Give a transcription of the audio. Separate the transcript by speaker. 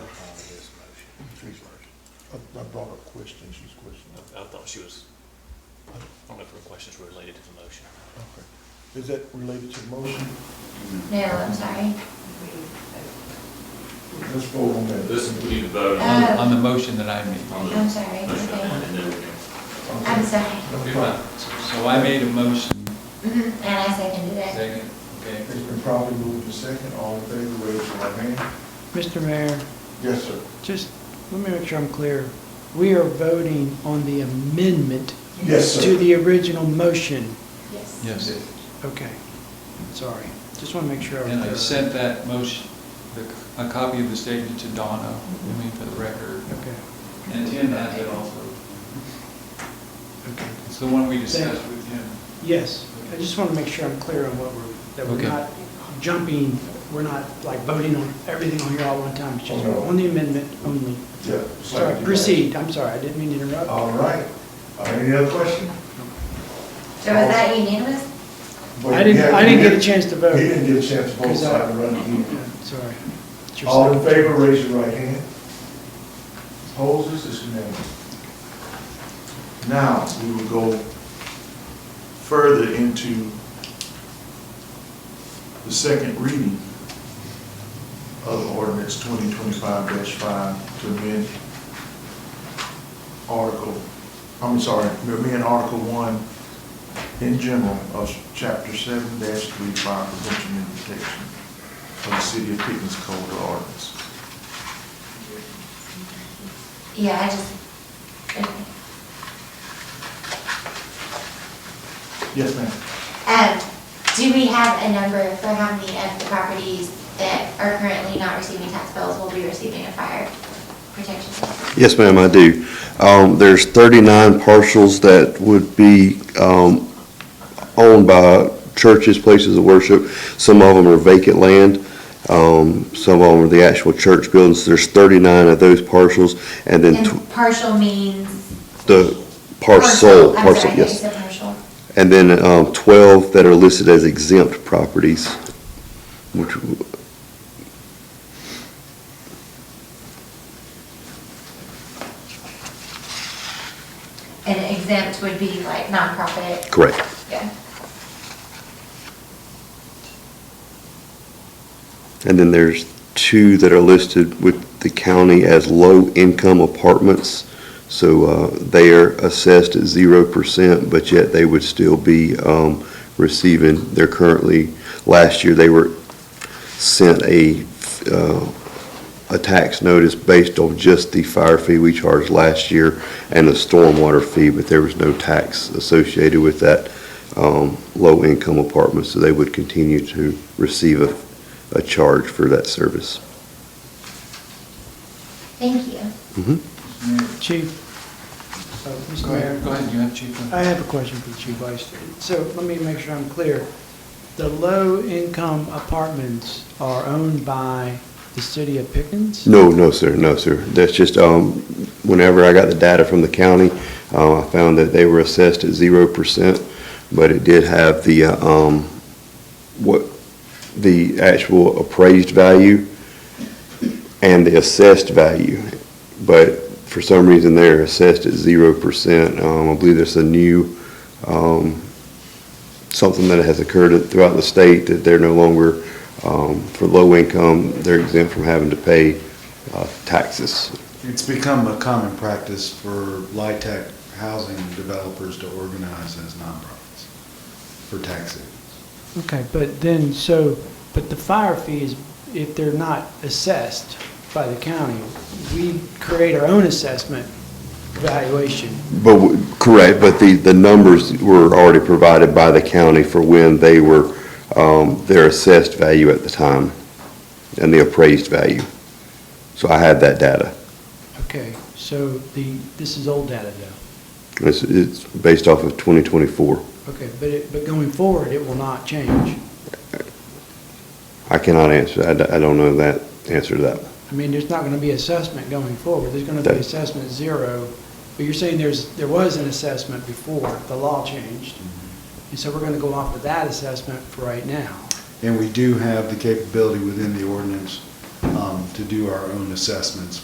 Speaker 1: I, I brought up questions, she's questioning.
Speaker 2: I thought she was, I don't know if her questions were related to the motion.
Speaker 1: Okay. Is that related to the motion?
Speaker 3: No, I'm sorry.
Speaker 1: Let's vote on that.
Speaker 4: This, we need to vote on,
Speaker 3: Oh.
Speaker 5: on the motion that I made.
Speaker 4: on the
Speaker 3: I'm sorry,
Speaker 4: motion,
Speaker 3: okay.
Speaker 4: and then we can.
Speaker 3: I'm sorry.
Speaker 1: No problem.
Speaker 5: So I made a motion,
Speaker 3: Mhm, And I seconded it.
Speaker 5: second, okay.
Speaker 1: It's been probably moved to second, all in favor, raise your right hand.
Speaker 6: Mr. Mayor,
Speaker 1: Yes, sir.
Speaker 6: just let me make sure I'm clear. We are voting on the amendment
Speaker 1: Yes,
Speaker 6: to
Speaker 1: sir.
Speaker 6: the original motion.
Speaker 3: Yes.
Speaker 5: Yes.
Speaker 6: Okay, sorry. Just want to make sure.
Speaker 5: And I sent that motion, the- a copy of the statement to Donna, I mean, for the record.
Speaker 6: Okay,
Speaker 5: And Tim has it also.
Speaker 6: okay.
Speaker 5: It's the one we discussed with him.
Speaker 6: Yes, I just want to make sure I'm clear on what we're, that we're
Speaker 5: Okay.
Speaker 6: not jumping, we're not like voting on everything on here all one time. It's just
Speaker 1: Oh, no.
Speaker 6: on the amendment only.
Speaker 1: Yeah.
Speaker 6: Sorry, proceed. I'm sorry, I didn't mean to interrupt.
Speaker 1: All right. Uh, Any other question?
Speaker 3: So was that unanimous?
Speaker 1: But
Speaker 6: I didn't-
Speaker 1: yeah,
Speaker 6: I didn't
Speaker 1: he
Speaker 6: get a chance to vote.
Speaker 1: He didn't get a chance to vote,
Speaker 6: Because
Speaker 1: so I had
Speaker 6: I-
Speaker 1: to run again.
Speaker 6: Sorry. It's your
Speaker 1: All in
Speaker 6: second.
Speaker 1: favor, raise your right hand. Opposed, this is unanimous. Now, we will go further into the second reading of ordinance twenty twenty-five five to amend article, I'm sorry, to amend article one in general of chapter seven three fire prevention and protection of the city of Pickens Code of Ordinance.
Speaker 3: Yeah, I just, okay.
Speaker 1: Yes, ma'am.
Speaker 3: Um, do we have a number for how many of the properties that are currently not receiving tax bills will be receiving a fire protection?
Speaker 7: Yes, ma'am, I do. Um, There's 39 parcels that would be um, owned by churches, places of worship. Some of them are vacant land, um, some of them are the actual church buildings. There's 39 of those parcels, and then tw-
Speaker 3: And partial means?
Speaker 7: the parcel,
Speaker 3: I'm
Speaker 7: parcel,
Speaker 3: sorry, I
Speaker 7: yes.
Speaker 3: said partial.
Speaker 7: And then um, 12 that are listed as exempt properties, which, w-
Speaker 3: And exempt would be like nonprofit?
Speaker 7: correct.
Speaker 3: Yeah.
Speaker 7: And then there's two that are listed with the county as low-income apartments. So uh, they are assessed at zero percent, but yet they would still be um, receiving, they're currently, last year, they were sent a, uh, a tax notice based on just the fire fee we charged last year and the stormwater fee, but there was no tax associated with that um, low-income apartment, so they would continue to receive a a charge for that service.
Speaker 3: Thank you.
Speaker 6: Chief, uh, Mr.
Speaker 5: Go
Speaker 6: Mayor.
Speaker 5: ahead, go ahead, you have chief.
Speaker 6: I have a question for the Chief Vice. So let me make sure I'm clear. The low-income apartments are owned by the city of Pickens?
Speaker 7: No, no, sir, no, sir. That's just, um, whenever I got the data from the county, uh, I found that they were assessed at zero percent, but it did have the, uh, um, what, the actual appraised value and the assessed value. But for some reason, they're assessed at zero percent. Um, I believe there's a new, um, something that has occurred throughout the state that they're no longer, um, for low income, they're exempt from having to pay, uh, taxes.
Speaker 8: It's become a common practice for LITAC housing developers to organize as nonprofits for tax savings.
Speaker 6: Okay, but then, so, but the fire fees, if they're not assessed by the county, we create our own assessment valuation.
Speaker 7: But, w- correct, but the, the numbers were already provided by the county for when they were, um, their assessed value at the time and the appraised value. So I had that data.
Speaker 6: Okay, so the, this is old data though.
Speaker 7: It's, it's based off of 2024.
Speaker 6: Okay, but it, but going forward, it will not change.
Speaker 7: I cannot answer, I, d- I don't know that, answer to that.
Speaker 6: I mean, there's not gonna be assessment going forward, there's gonna be
Speaker 7: That-
Speaker 6: assessment zero, but you're saying there's, there was an assessment before the law changed, and so we're gonna go off of that assessment for right now.
Speaker 8: And we do have the capability within the ordinance um, to do our own assessments